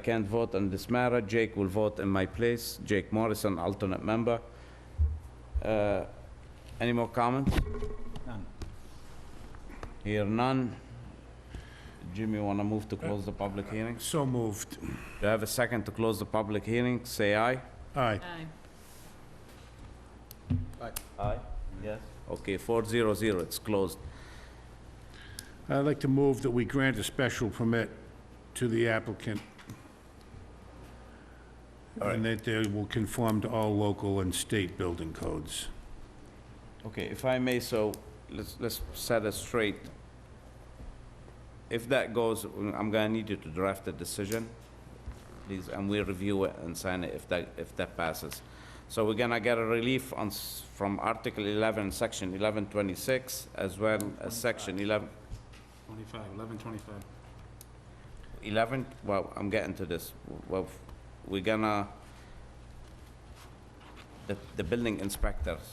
I can't vote on this matter. Jake will vote in my place. Jake Morrison, alternate member. Uh, Any more comments? None. Hear none. Jimmy, want to move to close the public hearing? So moved. Do I have a second to close the public hearing? Say aye. Aye. Aye. Aye, yes. Okay, 400, it's closed. I'd like to move that we grant a special permit to the applicant. And that they will conform to all local and state building codes. Okay, if I may, so let's, let's set it straight. If that goes, I'm gonna need you to draft a decision, please, and we review it and sign it if that, if that passes. So we're gonna get a relief on, s- from Article 11, Section 1126, as well as Section 11, 25, 11, 25. 11, well, I'm getting to this. Well, we're gonna, the, the building inspector's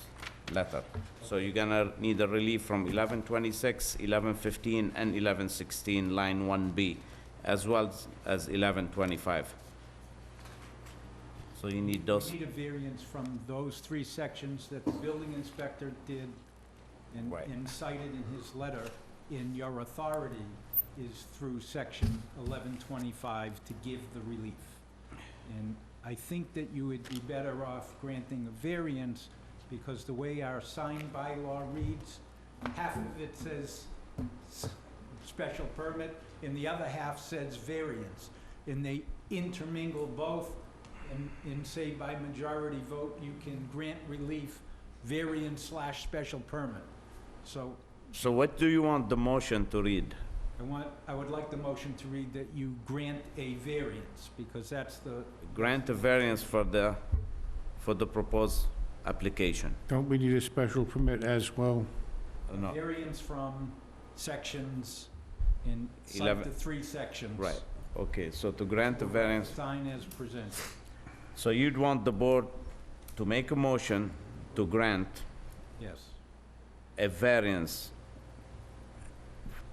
letter. So you're gonna need a relief from 1126, 1115, and 1116, line 1B, as well as- as 1125. So you need those, We need a variance from those three sections that the building inspector did and Right. and cited in his letter, in your authority is through section 1125 to give the relief. And I think that you would be better off granting a variance because the way our sign bylaw reads, half of it says s- special permit and the other half says variance. And they intermingle both and, and say by majority vote, you can grant relief, variance slash special permit. So so what do you want the motion to read? I want, I would like the motion to read that you grant a variance, because that's the, Grant a variance for the, for the proposed application? Don't we need a special permit as well? Uh, No. variance from sections in, cite the Eleven. three sections. Right, okay, so to grant a variance Sign as presented. So you'd want the board to make a motion to grant Yes, a variance.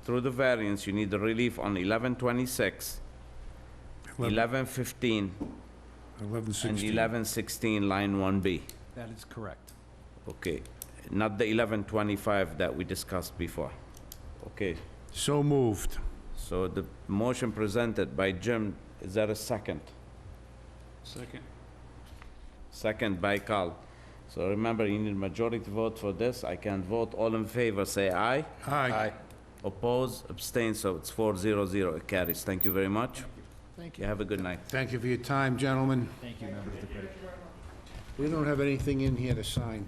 Through the variance, you need the relief on 1126, 1115, Eleven and sixteen. 1116, line 1B. that is correct. Okay, not the 1125 that we discussed before. Okay, So moved. so the motion presented by Jim, is there a second? Second. Second by Carl. So remember, you need majority vote for this. I can vote. All in favor, say aye. Aye. Oppose, abstain, so it's 400, it carries. Thank you very much. Thank You have a good night. Thank you for your time, gentlemen. Thank you, members of the committee. We don't have anything in here to sign.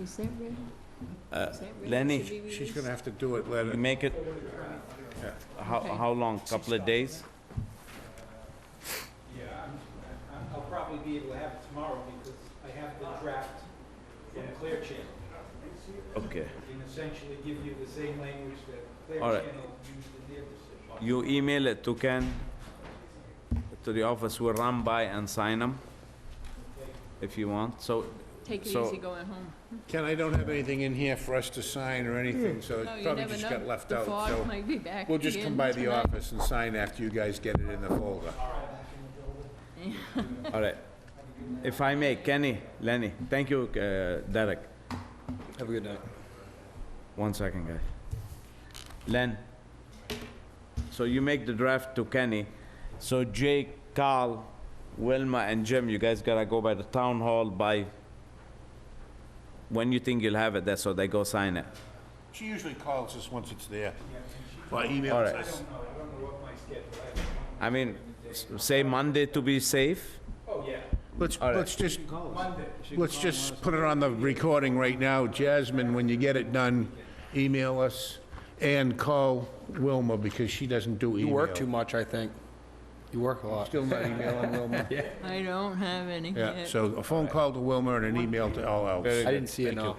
Is that ready? Is that ready to Lenny, be She's released? gonna have to do it later. you make it, how, how long, couple of days? Yeah, I'm- I- I'll probably be able to have it tomorrow, because I have the draft from Clear Channel. Okay. and essentially give you the same language that Clear All right. Channel used in their decision. You email it to Ken, to the office, we'll run by and sign them, if you want, so, Take it So- easy going home. Ken, I don't have anything in here for us to sign or anything, so No, it you probably never just know. got left The out, fog so. might be back We'll just again come by the tonight. office and sign after you guys get it in the folder. all right. If I may, Kenny, Lenny, thank you, uh, Derek. Have a good night. One second, guys. Len, so you make the draft to Kenny. So Jake, Carl, Wilma, and Jim, you guys gotta go by the town hall by when you think you'll have it there, so they go sign it. She usually calls us once it's there. Or All emails right. us. No, I don't know what my schedule is. I mean, s- say Monday to be safe. Oh, yeah. Let's, right. let's just, Monday. let's just put it on the recording right now. Jasmine, when you get it done, email us and call Wilma because she doesn't do email. You work too much, I think. You work a lot. Still not emailing Wilma? I don't have any Yeah, yet. so a phone call to Wilma and an email to all else. I didn't see it, no.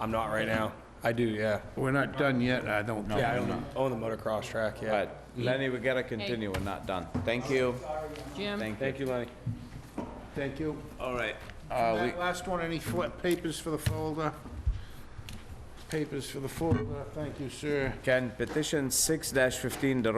I'm not right now. I do, yeah. We're not done yet, I don't know. Yeah, I own the, own the motocross track, yeah. But Lenny, we gotta continue, we're not done. Thank you, Jim? thank you. you, Lenny. Thank you. Uh, All right. That last one, any fl- papers for the folder? papers for the folder. Thank you, sir. Can petition six fifteen, the